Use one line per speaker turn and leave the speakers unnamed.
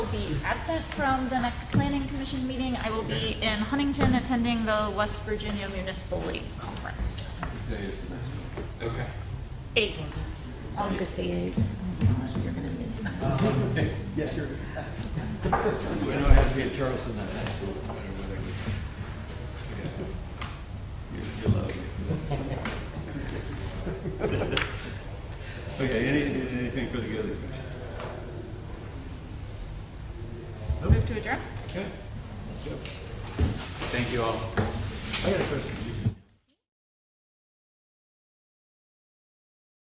absent from the next planning commission meeting. I will be in Huntington attending the West Virginia Municipal League Conference.
Okay.
Eight. August the eighth. You're gonna miss that.
Yes, sir.
We don't have to be in Charleston that night, so no matter whether we. You you love me. Okay, any, anything for the other question?
Move to adjourn?
Thank you all. I got a question.